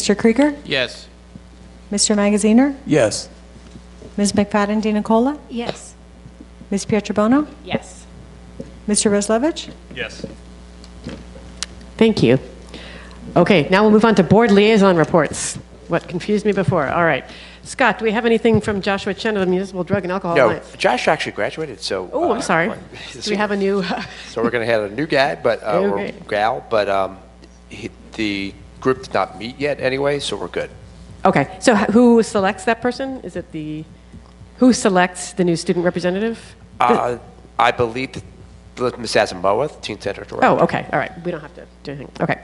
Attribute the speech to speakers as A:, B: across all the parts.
A: Mr. Krieger?
B: Yes.
A: Mr. Magaziner?
C: Yes.
A: Ms. McFadden DiNicola?
D: Yes.
A: Ms. Pietrobono?
D: Yes.
A: Mr. Roslevich?
C: Yes.
E: Thank you. Okay, now we'll move on to board liaison reports. What confused me before. All right. Scott, do we have anything from Joshua Chen of the Municipal Drug and Alcohol
F: No,
E: Alliance?
F: Josh actually graduated, so.
E: Oh,
F: uh,
E: I'm sorry.
F: this
E: Do we have a
F: year.
E: new?
F: So we're going to have a new guy, but, uh, or
E: Okay.
F: gal, but um, he- the group did not meet yet anyway, so we're good.
E: Okay, so h- who selects that person? Is it the, who selects the new student representative?
F: Uh, I believe that Ms. Asamoah, the teen center director.
E: Oh, okay, all right. We don't have to do anything. Okay.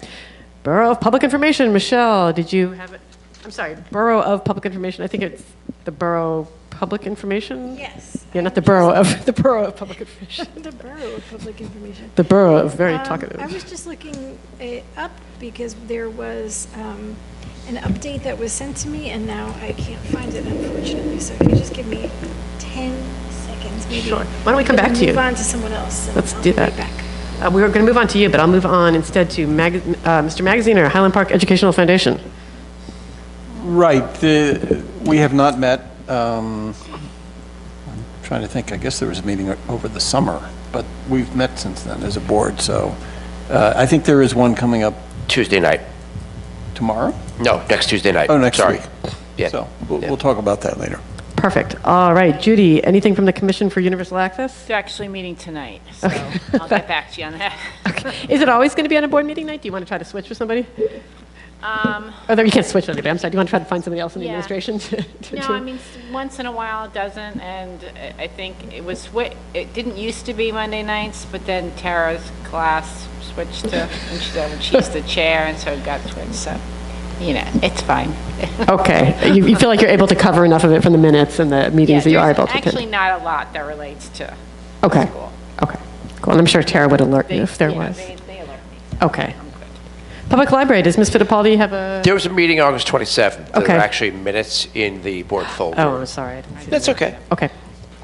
E: Borough of Public Information, Michelle, did you have it? I'm sorry, Borough of Public Information. I think it's the Borough Public Information?
D: Yes.
E: Yeah, not the Borough of, the Borough of Public Information.
D: The Borough of Public Information.
E: The Borough of very
D: Um,
E: talkative.
D: I was just looking it up because there was um, an update that was sent to me, and now I can't find it unfortunately. So if you just give me 10 seconds, maybe.
E: Sure. Why don't we come
D: and
E: back to you?
D: Move on to someone else. and
E: Let's
D: I'll
E: do
D: be right
E: that.
D: back.
E: Uh, we were going to move on to you, but I'll move on instead to Mag- uh, Mr. Magaziner, Highland Park Educational Foundation.
C: Right, the, we have not met, um, I'm trying to think, I guess there was a meeting o- over the summer, but we've met since then as a board, so, uh, I think there is one coming up
F: Tuesday night.
C: tomorrow?
F: No, next Tuesday night.
C: Oh, next
F: Sorry.
C: week.
F: Yeah.
C: So, we'll, we'll talk about that later.
E: Perfect. All right, Judy, anything from the Commission for Universal Access?
G: They're actually meeting tonight, so I'll get back to you on that.
E: Is it always going to be on a board meeting night? Do you want to try to switch with somebody?
G: Um,
E: Oh, no, you can't switch with anybody. I'm sorry. Do you want to try to find somebody else in the
G: Yeah.
E: administration? to- to
G: No,
E: do-
G: I mean, s- once in a while it doesn't, and I- I think it was, swi- it didn't used to be Monday nights, but then Tara's class switched to, and she's, and she's the chair, and so it got switched, so, you know, it's fine.
E: Okay. You, you feel like you're able to cover enough of it from the minutes and the
G: Yeah,
E: meetings that you are
G: there's
E: able to attend?
G: Actually, not a lot that relates to
E: Okay.
G: school.
E: Okay. Cool. And I'm sure Tara would alert
G: They-
E: you if there
G: you know,
E: was.
G: They they alert me.
E: Okay.
G: I'm good.
E: Public Library, does Ms. Fittipaldi have a?
F: There was a meeting August 27th. There
E: Okay.
F: were actually minutes in the board folder.
E: Oh, I'm sorry. I didn't see that.
F: That's okay.
E: Okay.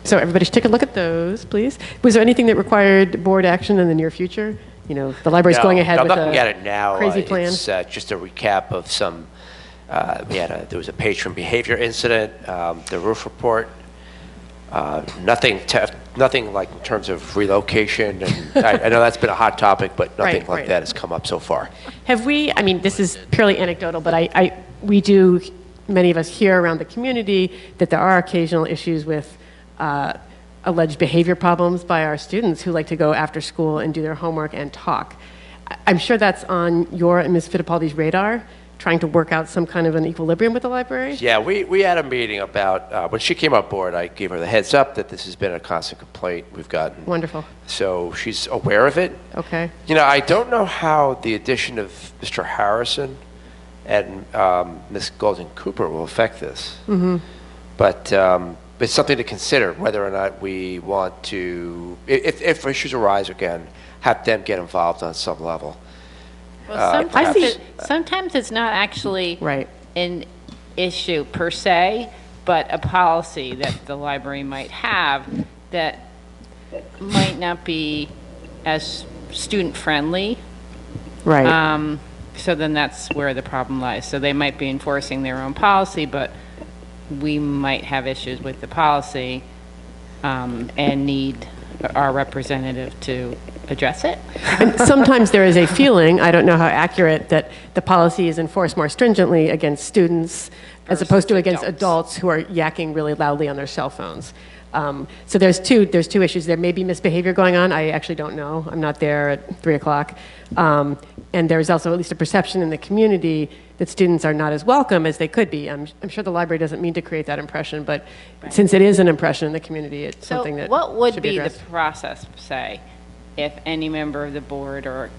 E: So everybody should take a look at those, please. Was there anything that required board action in the near future? You know, the library's
F: No,
E: going ahead
F: I'm
E: with
F: looking at
E: a
F: it now. Uh,
E: crazy plan.
F: It's uh, just a recap of some, uh, we had a, there was a patron behavior incident, um, the roof report, uh, nothing, te- nothing like in terms of relocation, and I I know that's been a hot topic, but nothing
E: Right,
F: like
E: right.
F: that has come up so far.
E: Have we, I mean, this is purely anecdotal, but I, I, we do, many of us here around the community, that there are occasional issues with uh, alleged behavior problems by our students who like to go after school and do their homework and talk. I- I'm sure that's on your and Ms. Fittipaldi's radar, trying to work out some kind of an equilibrium with the library?
F: Yeah, we, we had a meeting about, uh, when she came on board, I gave her the heads up that this has been a constant complaint we've gotten.
E: Wonderful.
F: So she's aware of it.
E: Okay.
F: You know, I don't know how the addition of Mr. Harrison and um, Ms. Golden Cooper will affect this. Mm-hmm. But um, it's something to consider whether or not we want to, i- if, if issues arise again, have them get involved on some level.
G: Well,
E: Uh, I
G: sometimes,
E: see-
G: it- sometimes it's not actually.
E: Right.
G: An issue per se, but a policy that the library might have that might not be as student-friendly.
E: Right.
G: Um, So then that's where the problem lies. So they might be enforcing their own policy, but we might have issues with the policy um, and need our representative to address it.
E: And sometimes there is a feeling, I don't know how accurate, that the policy is enforced more stringently against students as opposed to against adults who are yakking really loudly on their cell phones. Um, so there's two, there's two issues. There may be misbehavior going on. I actually don't know. I'm not there at 3 o'clock. Um, and there's also at least a perception in the community that students are not as welcome as they could be. I'm, I'm sure the library doesn't mean to create that impression, but since it is an impression in the community, it's
G: So
E: something that
G: what would
E: should be
G: be the
E: addressed.
G: process, say, if any member of the board or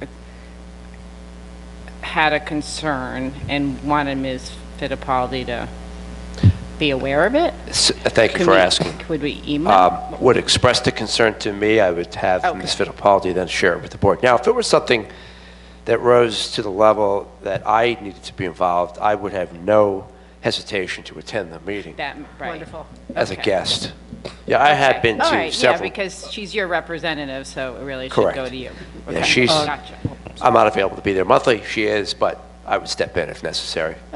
G: had a concern and wanted Ms. Fittipaldi to be aware of it?
F: S- Thank you
G: Could
F: for
G: we-
F: asking.
G: Could we email?
F: um, would express the concern to me, I would have Ms. Fittipaldi then share it with the board. Now, if it was something that rose to the level that I needed to be involved, I would have no hesitation to attend the meeting
G: That, right.
E: Wonderful.
F: as a
G: okay.
F: guest. Yeah, I have been
G: All
F: to
G: right, yeah,
F: several.
G: because she's your representative, so it really should
F: Correct.
G: go to you.
F: Yeah,
G: Okay,
F: she's-
G: Gotcha.
F: I'm not available to be there monthly, she is, but I would step in if necessary.